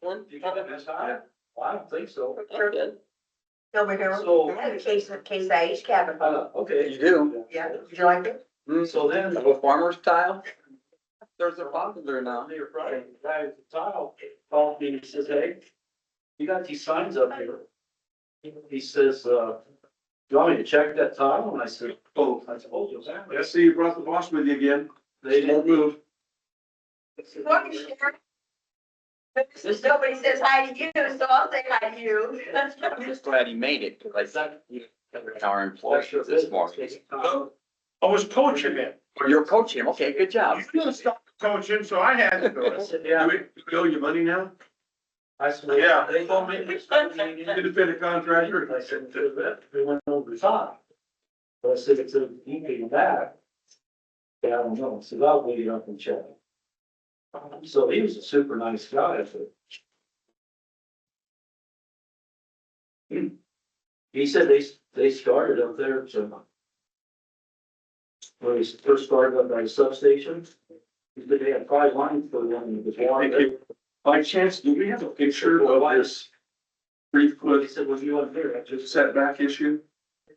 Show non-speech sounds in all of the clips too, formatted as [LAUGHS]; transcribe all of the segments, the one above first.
one? You got it this high? Well, I don't think so. I'm good. No, we So- don't. I have a case, of case IH cabin. Uh, okay. You do? Yeah, would you like it? So then, Of a farmer's style? There's a popular now. Monday or Friday, the guy at the tile called me and he says, hey, you got these signs up here. He says, uh, do you want me to check that tile? And I said, oh, I told you exactly. I see you brought the boss with you again. They Don't didn't. move. Welcome, Sharon. Nobody says hi to you, so I'll say hi to you. I'm just glad he made it, because I said, you our employee That's your this business. morning. Uh, I was coaching him. Well, you're coaching him, okay, good job. You didn't stop coaching, so I had to do I it. said, Do yeah. we, do we owe you money now? I said, Yeah. They told me. [LAUGHS] Did it fit a contractor? I said, "To the- we went over the top. But I said, it's a, he came back. Yeah, I don't know, so I'll wait up and check. So he was a super nice guy, I said. Hmm. He said they, they started up there, so. When he first started up by the substation, he said they had five lines for them, it was one. Thank you. By chance, do we have a picture of this three But he foot said, well, you want to hear, I just. setback issue?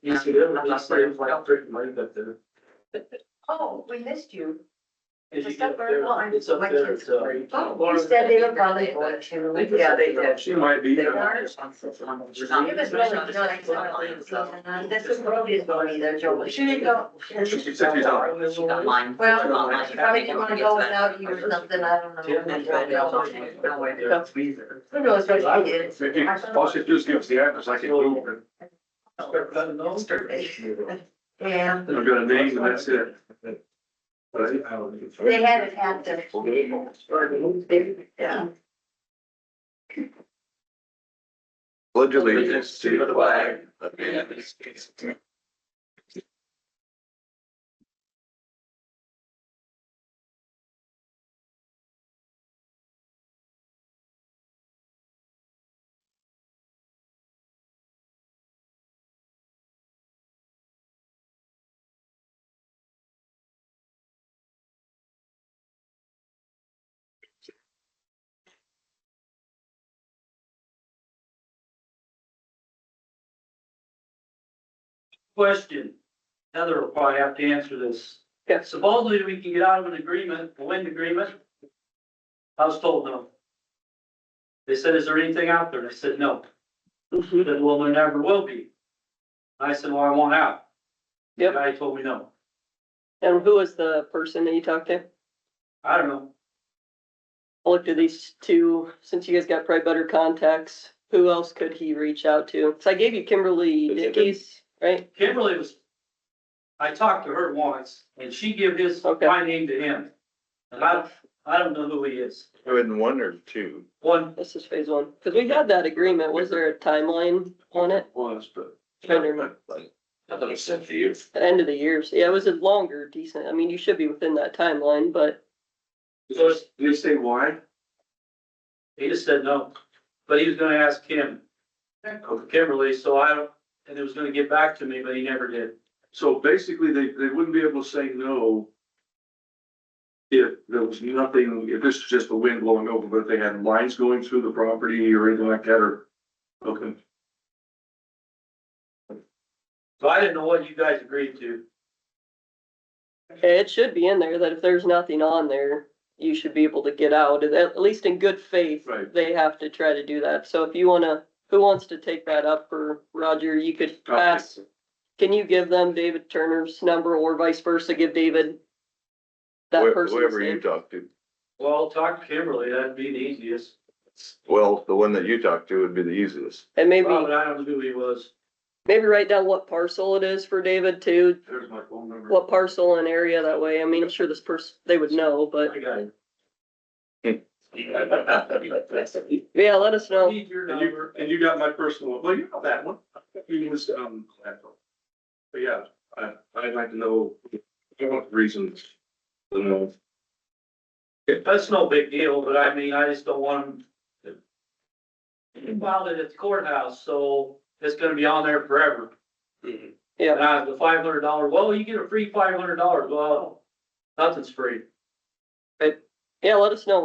You see, they're not saying like I'm drinking money up there. Oh, we missed you. If you Is get that up very there, long? It's up My there, kids it's, uh. worried. Oh, Oh, You said they were probably going to. Yeah, they did. She might be. They uh, are. It was really nice. And This is probably his money, they're joking. She didn't go. She said she's on. She got mine. Well, she probably didn't wanna go without you or something, I don't know. Tim and Fred, they all went there. No way. Who knows what she did? If you- All she does give us the address, I can go over Start cutting those. Yeah, it. I've got a name and that's it. But I- they had it at the. Yeah. allegiance to the flag Question, Heather will probably have to answer this. Yeah. Supposedly we can get out of an agreement, a wind agreement. I was told no. They said, is there anything out there? And I said, no. They said, well, there never will be. And I said, well, I want out. The Yep. Guy told me no. And who was the person that you talked to? I don't know. I looked at these two, since you guys got probably better contacts, who else could he reach out to? So I gave you Kimberly Dickies, right? Kimberly was, I talked to her once and she gave his, Okay. my name to him. And I, don't- I don't know who he is. I wouldn't wonder too. One, This is phase one, because we had that agreement. Was there a timeline on it? Was, but Trying to remember. Another sent to you. The End of the year. So yeah, it was a longer decent, I mean, you should be within that timeline, but so it's- did they say why? He just said no, but he was gonna ask Kim, Kimberly, so I, don't and it was gonna get back to me, but he never did. So basically, they, they wouldn't be able to say no. If there was nothing, if this was just the wind blowing over, but if they had lines going through the property or anything like that, or, okay. So I didn't know what you guys agreed to. it should be in there that if there's nothing on there, you should be able to get out, at- at least in good faith. Right. They have to try to do that. So if you wanna, who wants to take that up for Roger, you could pass. Can you give them David Turner's number or vice versa, give David that Wh- person's Whoever you name? talk to. Well, talk to Kimberly, that'd be the easiest. Well, the one that you talk to would be the easiest. And maybe, Well, but I don't know who he was. maybe write down what parcel it is for David too, There's my phone number. what parcel and area that way. I mean, I'm sure this person, they would know, but I got it. yeah, let us know. Need your And you, number. and you got my personal, well, you got that one. It was, um, that one. But yeah, I, I'd like to know, I want reasons. to know. That's no big deal, but I mean, I just don't want him. to- He filed it at the courthouse, so it's gonna be on there forever. Yeah. Now, the five hundred dollar, well, you get a free five hundred dollars, well, nothing's free. Yeah, let us know